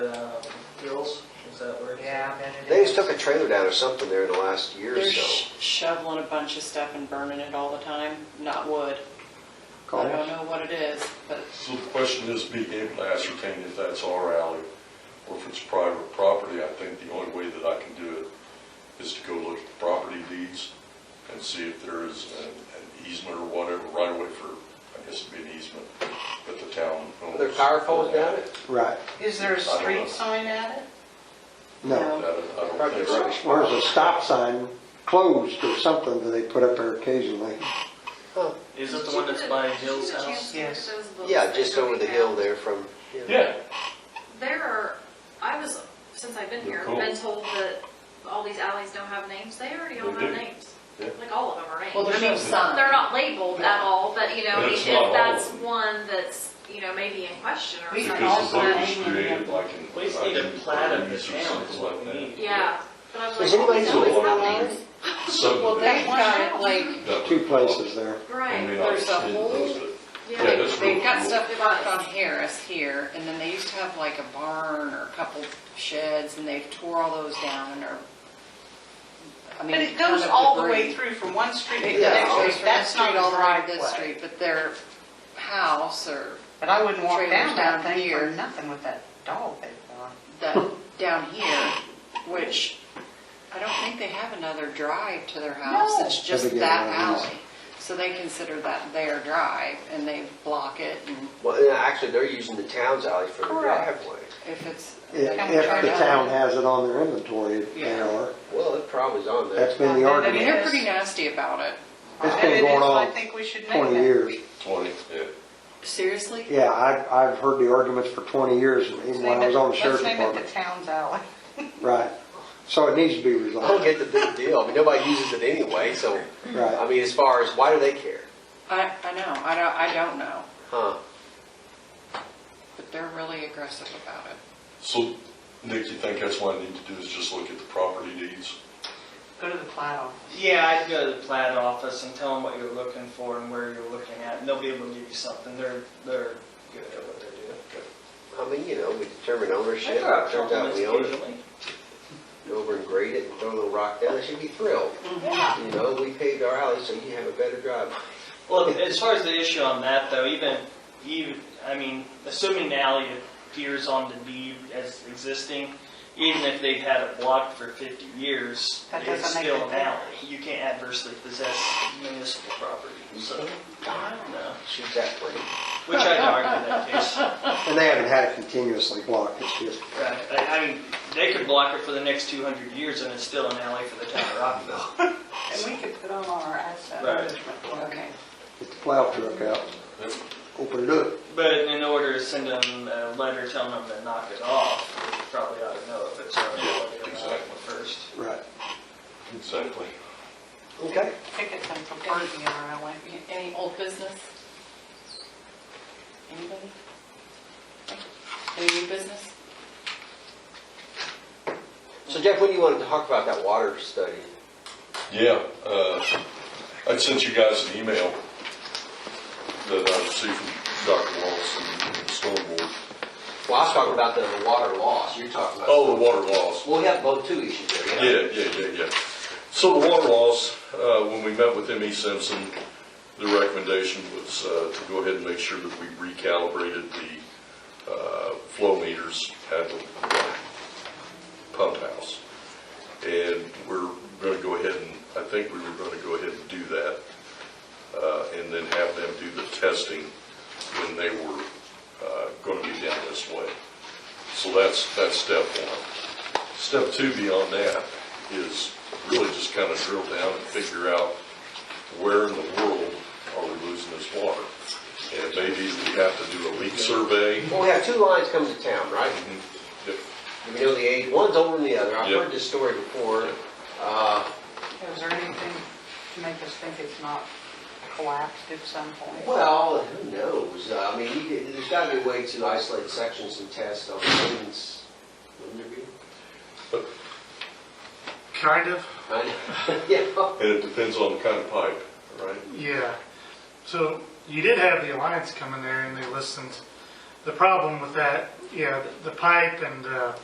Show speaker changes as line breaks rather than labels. just took a trailer down or something there in the last year or
They're
so.
sh- shoveling a bunch of stuff and burning it all the time, not wood. I don't
Call.
know what it is, but
So the question is being able to ascertain if that's our alley or if it's private property. I think the only way that I can do it is to go look at the property deeds and see if there is an an easement or whatever, right away for, I guess it'd be an easement, but the town owns.
Their power poles down it?
Right,
Is there a
I don't know.
street sign at it?
no.
That I I don't
Probably
think so.
rubbish.
Or is a stop sign closed or something that they put up there occasionally?
Is it the one that's by Hill's house?
Yes.
Yeah, just over the hill there from,
Yeah,
There are, I was, since I've been here,
Cool.
been told that all these alleys don't have names. They already all
They
have
do.
names.
Yeah.
Like all of them are named.
well, there's
I mean,
no sign.
They're not labeled at all, but you know,
But it's
if
not all of
that's
them.
one that's, you know, maybe in question or
We can
something.
because the
also-
book was created like in.
We just need a plat of the
1930s or
town is
something
what we
like that.
need.
Yeah. But I was like,
Does anybody
"These
know
always
what
have
it
names."
Well, they've
Subdivision.
got it like,
That
Two
would-
places there.
I mean,
Right.
I've
There's a
seen
whole-
those, but-
Yeah.
Yeah, that's real
They've got
cool.
stuff parked on Harris here, and then they used to have like a barn or a couple sheds, and they've tore all those down and are, I mean.
But it goes
ton of
all the
debris.
way through from one street to
It
the
goes
next
all the
street.
Goes from this
That's
street
not
all
a
around
right
this street, but their house or
But I wouldn't walk
Trailers
down that
down
thing
here.
for nothing with that dog they've got.
that, down here, which I don't think they have another drive to their house.
No.
It's just
Have to get
that
one of these.
alley. So they consider that their drive, and they block it, and
well, yeah, actually, they're using the town's alley for the
Correct.
driveway.
if it's.
If if the town has it on their inventory, they
Yeah.
are.
Well, it probably's on there.
That's been the
I mean,
argument
they're pretty nasty about it.
It's
And
been
it is,
going
I
on
think we should name
twenty
it.
years.
Twenty, yeah.
Seriously?
Yeah, I've, I've heard the arguments for twenty years, even
Let's
when
name
I was
it-
on the sheriff's
Let's name it
department.
the town's alley.
Right. So it needs to be
I don't
resolved,
get the big deal. I mean, nobody uses it anyway, so, I
right.
mean, as far as, why do they care?
I, I know, I don't, I don't know,
Huh?
but they're really aggressive about it.
So, Nick, you think that's what I need to do is just look at the property deeds?
Go to the plat office.
Yeah, I'd go to the plat office and tell them what you're looking for and where you're looking at, and they'll be able to give you something. They're, they're good at what they do.
I mean, you know, we determine ownership,
They throw out
it turns out
compliments
we own it,
occasionally.
Go over and grade it and throw a little rock down, they should be thrilled.
Mm-hmm.
You know, we paved our alley, so you have a better driveway.
Well, as far as the issue on that though, even, even, I mean, assuming the alley appears on the deed as existing, even if they've had it blocked for 50 years,
That
it's
doesn't make
still
it
an alley. You can't adversely possess municipal property, so, no.
Shoot that place.
Which I'd argue that case.
And they haven't had it continuously blocked, it's just,
Right, I I mean, they could block it for the next 200 years and it's still an alley for the town of Rockville.
And we could put on our asset
Right.
management plan.
Okay.
get the plow truck out, open it up.
But in order to send them a letter telling them to knock it off, we probably ought to know if it's already
Yeah,
on the
exactly.
first.
Right.
Exactly.
Okay.
Tickets and property in our alley.
Any old business? Anybody? Any new business?
So Jeff, when you wanted to talk about that water study?
Yeah, uh, I sent you guys an email that I received from Dr. Wallace and Storm Board.
Well, I was talking about the water loss, you're talking about.
Oh, the water loss.
Well, we have both two issues there, yeah.
Yeah, yeah, yeah, yeah. So the water loss, uh, when we met with M.E. Simpson, the recommendation was uh, to go ahead and make sure that we recalibrated the uh, flow meters at the pump house. And we're going to go ahead and, I think we were going to go ahead and do that, uh, and then have them do the testing when they were going to be down this way. So that's, that's step one. Step two beyond that is really just kind of drill down and figure out where in the world are we losing this water? And maybe we have to do a leak survey.
Well, we have two lines come to town, right?
Mm-hmm. Yep.
We know the age, one's older than the other, I've
Yep.
heard this story before. Uh,
Is there anything to make us think it's not collapsed at some point?
Well, who knows? Uh, I mean, you could- there's got to be a way to isolate sections and test on things, wouldn't there be?
Kind of,
I know. Yeah.
And it depends on the kind of pipe, right?
yeah. So you did have the Alliance come in there and they listened. The problem with that, yeah, the pipe and, uh,